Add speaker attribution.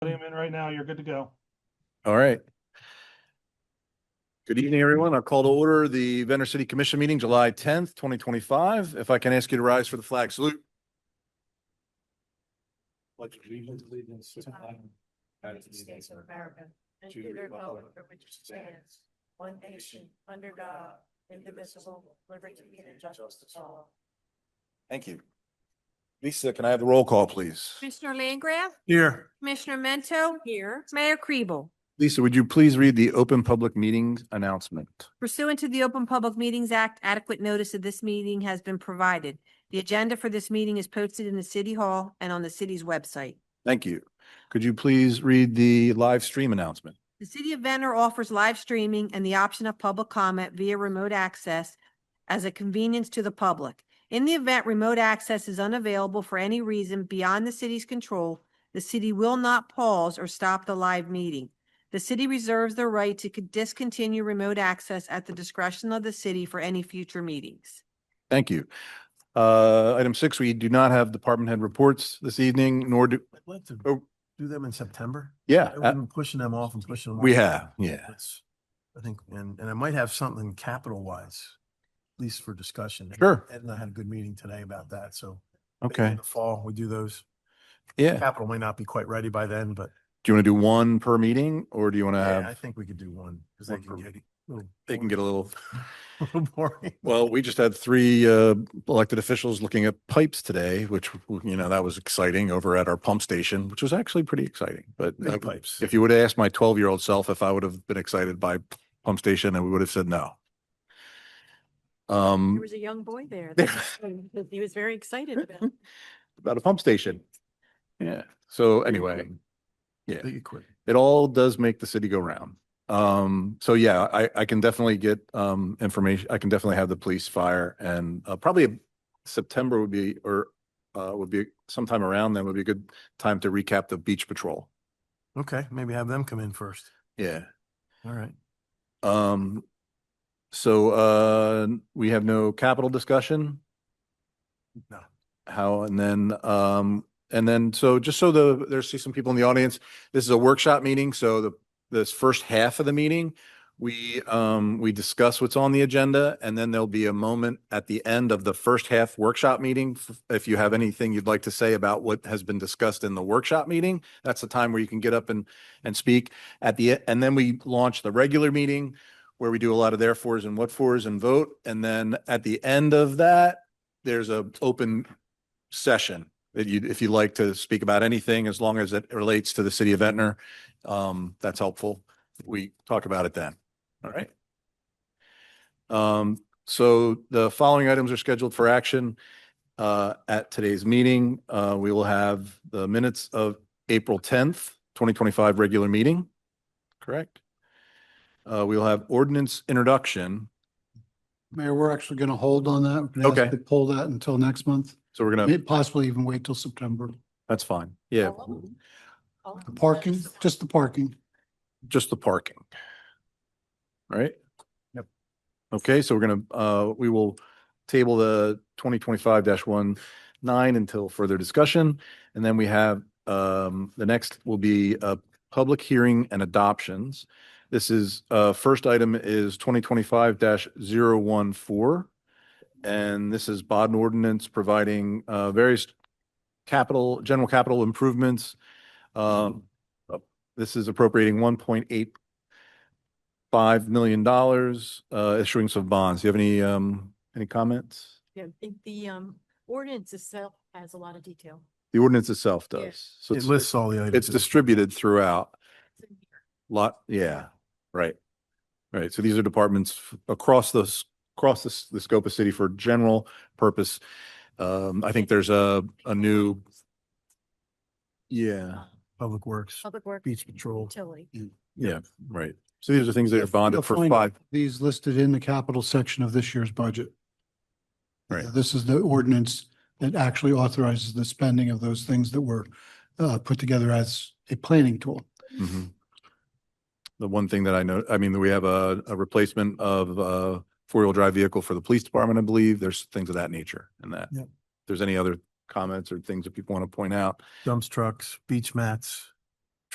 Speaker 1: right now. You're good to go.
Speaker 2: All right. Good evening, everyone. I'll call to order the Venner City Commission meeting, July tenth, twenty twenty-five. If I can ask you to rise for the flag salute.
Speaker 3: Pledge allegiance to the flag of the United States of America and to the republic for which it stands, one nation, under God, indivisible, liberty and justice for all.
Speaker 2: Thank you. Lisa, can I have the roll call, please?
Speaker 4: Commissioner Landgraf,
Speaker 2: Here.
Speaker 4: Commissioner Mento,
Speaker 5: Here.
Speaker 4: Mayor Kribel.
Speaker 2: Lisa, would you please read the open public meetings announcement?
Speaker 4: Pursuant to the Open Public Meetings Act, adequate notice of this meeting has been provided. The agenda for this meeting is posted in the City Hall and on the city's website.
Speaker 2: Thank you. Could you please read the live stream announcement?
Speaker 4: The City of Venner offers live streaming and the option of public comment via remote access as a convenience to the public. In the event remote access is unavailable for any reason beyond the city's control, the city will not pause or stop the live meeting. The city reserves the right to con- discontinue remote access at the discretion of the city for any future meetings.
Speaker 2: Thank you. Uh, item six, we do not have department head reports this evening, nor do,
Speaker 3: I'd like to
Speaker 2: Oh.
Speaker 3: do them in September.
Speaker 2: yeah,
Speaker 3: I've
Speaker 2: uh,
Speaker 3: been pushing them off and pushing them. off.
Speaker 2: we have, yeah.
Speaker 3: That's- I think, and, and I might have something capital wise, at least for discussion.
Speaker 2: Sure.
Speaker 3: Ed and I had a good meeting today about that, so. maybe in
Speaker 2: Okay,
Speaker 3: the Fall, we do those.
Speaker 2: yeah.
Speaker 3: Capital may not be quite ready by then, but
Speaker 2: Do you want to do one per meeting or do you want to
Speaker 3: yeah, I
Speaker 2: have,
Speaker 3: think we could do one. Cause they
Speaker 2: Uh, one per
Speaker 3: can get. a little-
Speaker 2: they can get a little,
Speaker 3: A little boring.
Speaker 2: well, we just had three uh, elected officials looking at pipes today, which, you know, that was exciting over at our pump station, which was actually pretty exciting. But
Speaker 3: Big
Speaker 2: I-
Speaker 3: pipes.
Speaker 2: if you would have asked my 12 year old self if I would have been excited by pump station, and we would have said no.
Speaker 5: There
Speaker 2: Um,
Speaker 5: was a young boy there.
Speaker 2: There-
Speaker 5: that He was very excited about. it.
Speaker 2: about a pump station. Yeah. So anyway, yeah.
Speaker 3: Big equipment.
Speaker 2: it all does make the city go round. Um, so yeah, I, I can definitely get, um, information. I can definitely have the police, fire and, uh, probably September would be, or, uh, would be sometime around then would be a good time to recap the beach patrol.
Speaker 3: Okay, maybe have them come in first.
Speaker 2: Yeah.
Speaker 3: All right.
Speaker 2: Um, so, uh, we have no capital discussion?
Speaker 3: No.
Speaker 2: How, and then, um, and then, so just so the, there's see some people in the audience, this is a workshop meeting, so the, this first half of the meeting, we, um, we discuss what's on the agenda, and then there'll be a moment at the end of the first half workshop meeting. f- If you have anything you'd like to say about what has been discussed in the workshop meeting, that's the time where you can get up and, and speak at the, e- and then we launch the regular meeting where we do a lot of therefores and what fors and vote. And then at the end of that, there's a open session that you, if you'd like to speak about anything, as long as it relates to the city of Ventnor, um, that's helpful. We talk about it then. All right. Um, so the following items are scheduled for action, uh, at today's meeting. Uh, we will have the minutes of April tenth, twenty twenty-five regular meeting. Correct? Uh, we'll have ordinance introduction.
Speaker 6: Mayor, we're actually going to hold on that. We're gonna ask
Speaker 2: Okay.
Speaker 6: to Pull that until next month,
Speaker 2: So we're
Speaker 6: May-
Speaker 2: gonna,
Speaker 6: possibly even wait till September.
Speaker 2: that's fine. Yeah,
Speaker 5: All of them. All of
Speaker 6: The
Speaker 5: them.
Speaker 6: parking, just the parking.
Speaker 2: just the parking. Right?
Speaker 3: Yep.
Speaker 2: Okay, so we're gonna, uh, we will table the twenty twenty-five dash one nine until further discussion. And then we have, um, the next will be, uh, public hearing and adoptions. This is, uh, first item is twenty twenty-five 14 And this is Baden ordinance providing, uh, various capital, general capital improvements. Um, this is appropriating one point eight five million dollars, uh, issuing some bonds. Do you have any, um, any comments?
Speaker 5: Yeah, I think the um ordinance itself has a lot of detail.
Speaker 2: The ordinance itself
Speaker 5: Yeah.
Speaker 2: does. So
Speaker 3: It
Speaker 2: it's-
Speaker 3: lists all the
Speaker 2: It's
Speaker 3: items.
Speaker 2: distributed throughout.
Speaker 5: It's in here.
Speaker 2: Lot, yeah, right. Right, so these are departments f- across the, s- across the, s- the scope of city for general purpose. Um, I think there's a, a new, yeah,
Speaker 3: Public Works,
Speaker 5: Public Work.
Speaker 3: Beach Patrol.
Speaker 5: Utility.
Speaker 2: yeah, right. So these are things that are bonded
Speaker 6: You'll
Speaker 2: for
Speaker 6: find
Speaker 2: five.
Speaker 6: These listed in the capital section of this year's budget.
Speaker 2: Right.
Speaker 6: This is the ordinance that actually authorizes the spending of those things that were uh, put together as a planning tool.
Speaker 2: Mhm. The one thing that I know, I mean, we have a, a replacement of a four-wheel drive vehicle for the police department, I believe. There's things of that nature in that.
Speaker 3: Yep.
Speaker 2: If there's any other comments or things that people want to point out,
Speaker 3: dumps trucks, beach mats,